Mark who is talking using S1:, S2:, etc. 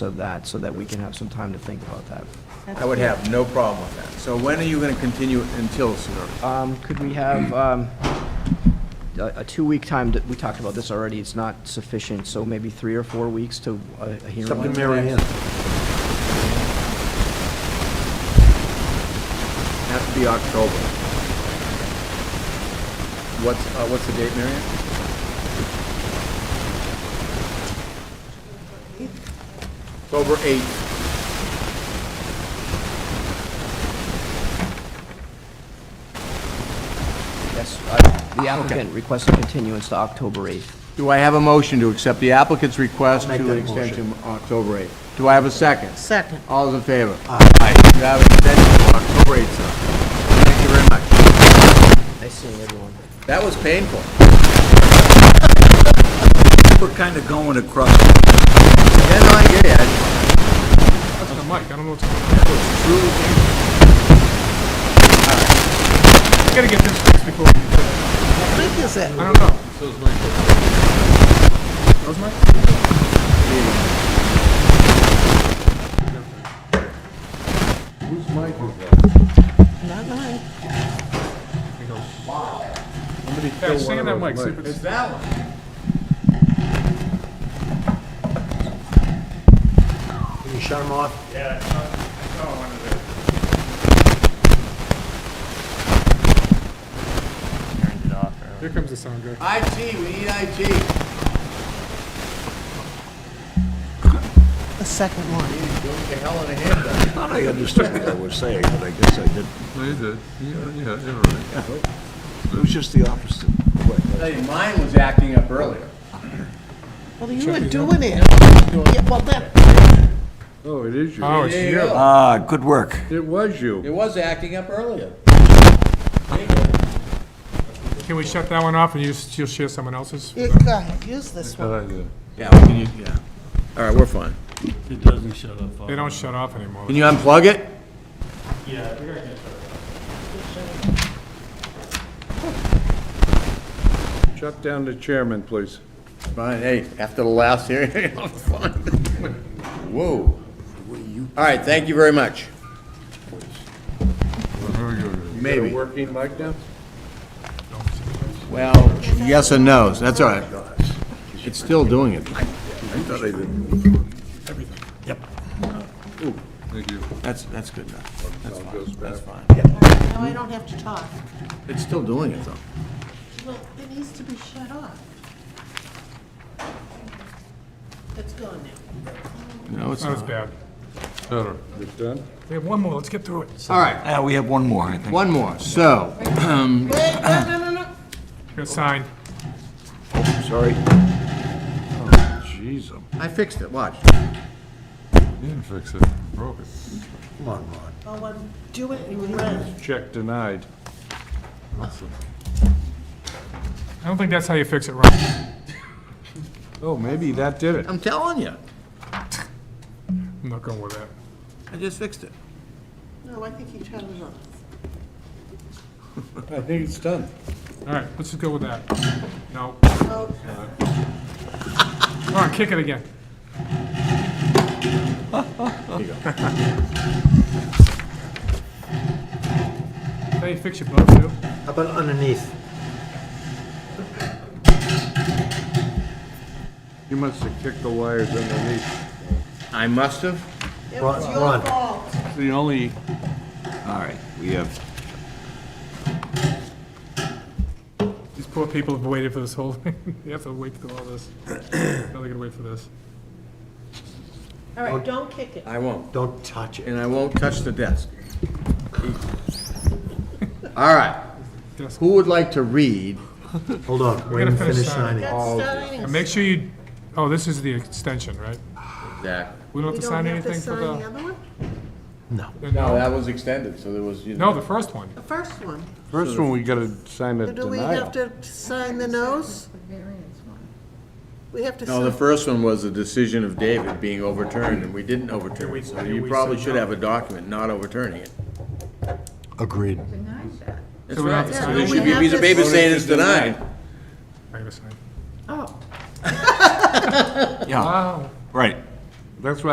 S1: of that, so that we can have some time to think about that.
S2: I would have no problem with that. So when are you going to continue it until, sir?
S1: Um, Could we have um, a a two-week time, that- we talked about this already, it's not sufficient, so maybe three or four weeks to uh, a a hearing?
S3: It's up to Mary Ann.
S2: Has to be October. What's, uh, what's the date, Marion? October 8th.
S1: Yes, I- the applicant requests a continuance to October 8th.
S2: Do I have a motion to accept the applicant's request
S3: I'll make
S2: to
S3: that
S2: extend
S3: motion.
S2: to October 8th? Do I have a second?
S4: Second.
S2: All those in favor? Aye. You have an extension to October 8th, sir. Thank you very much.
S1: Nice seeing everyone.
S2: That was painful.
S5: We're kind of going across.
S2: Yeah, no, I get it. I-
S5: Mike, I don't know what's. I gotta get this fixed before we.
S4: Think is it?
S5: I don't know.
S4: Not mine.
S5: Yeah, stay in that mic. see if it's-
S3: Can you shut them off?
S5: Here comes the sound guy.
S2: IT, we need IT.
S4: The second one.
S3: I thought I understood what I was saying, but I guess I didn't.
S6: No, you did. Yeah, yeah, you're right.
S3: It was just the opposite.
S2: Tell you, mine was acting up earlier.
S4: Well, you were doing it. Yeah, well, that,
S6: Oh, it is you.
S5: Oh, it's you.
S3: Ah, good work.
S6: It was
S2: It
S6: you.
S2: was acting up earlier.
S5: Can we shut that one off and you, s- you'll share someone else's?
S4: you go ahead, use this one.
S6: Good idea.
S2: Yeah, we can, use- yeah. All right, we're fine.
S7: It doesn't shut off.
S5: They don't shut off anymore.
S2: Can you unplug it?
S7: Yeah, we're gonna get shut off.
S6: Shut down the chairman, please.
S2: Fine, hey, after the last hearing, I'm fine. Whoa. All right, thank you very much. Maybe.
S6: Working mic now?
S2: Well, yes and no's, that's all right. It's still doing it.
S6: Thank you.
S2: That's, that's good enough. That's fine, that's fine.
S4: Now I don't have to talk.
S2: It's still doing it, though.
S4: Well, it needs to be shut off. It's gone now.
S2: No, it's
S5: That was
S2: not.
S5: Oh, bad.
S6: Better. You done?
S5: We have one more, let's get through it.
S2: All right,
S7: Yeah, Uh, we have one more, I think.
S2: one more, so,
S4: Wait, no, no, no, no.
S5: Good sign.
S3: Sorry. Oh, Jeez, um,
S2: I fixed it, watch.
S6: You didn't fix it. You Broke it.
S3: come on, Ron.
S4: Oh, I'm doing it in red.
S6: Check denied.
S5: I don't think that's how you fix it, Ron.
S6: Oh, maybe that did it.
S2: I'm telling you,
S5: I'm not going with that.
S2: I just fixed it.
S4: No, I think you turned it off.
S6: I think it's done.
S5: All right, let's just go with that. No.
S4: Oh,
S5: Ron, kick it again. Hey, fix your boat, too.
S3: How about underneath?
S6: You must have kicked the wires underneath.
S2: I must have.
S4: it
S3: Ron-
S4: was your
S3: Ron.
S4: fault.
S6: The only
S7: All right, we have
S5: These poor people have waited for this whole thing. They have to wait through all this. Now they gotta wait for this.
S4: All right, don't kick it.
S2: I won't.
S3: Don't touch it.
S2: and I won't touch the desk. All right,
S5: Desk.
S2: who would like to read?
S3: Hold on, we're
S5: gotta
S3: gonna
S5: finish
S3: finish signing.
S5: signing.
S4: That's starting.
S5: And make sure you, oh, this is the extension, right?
S2: Zach.
S5: We don't have
S4: You
S5: to
S4: don't
S5: sign
S4: have to
S5: anything for
S4: sign the
S5: the.
S4: other one?
S2: No, that was extended, so there was, you
S5: No,
S2: know.
S5: the first one.
S4: The first one.
S6: First one, we gotta sign a
S4: Do we have
S6: denial.
S4: to sign the nose? We have to sign.
S2: No, the first one was the decision of David being overturned, and we didn't overturn it, so you probably should have a document not overturning it.
S3: Agreed.
S2: That's
S5: we
S2: right,
S5: have to
S2: so
S5: sign
S2: there
S4: it.
S2: should be a piece of paper saying it's denied.
S5: I gotta sign.
S4: Oh.
S5: Wow.
S7: right.
S6: That's why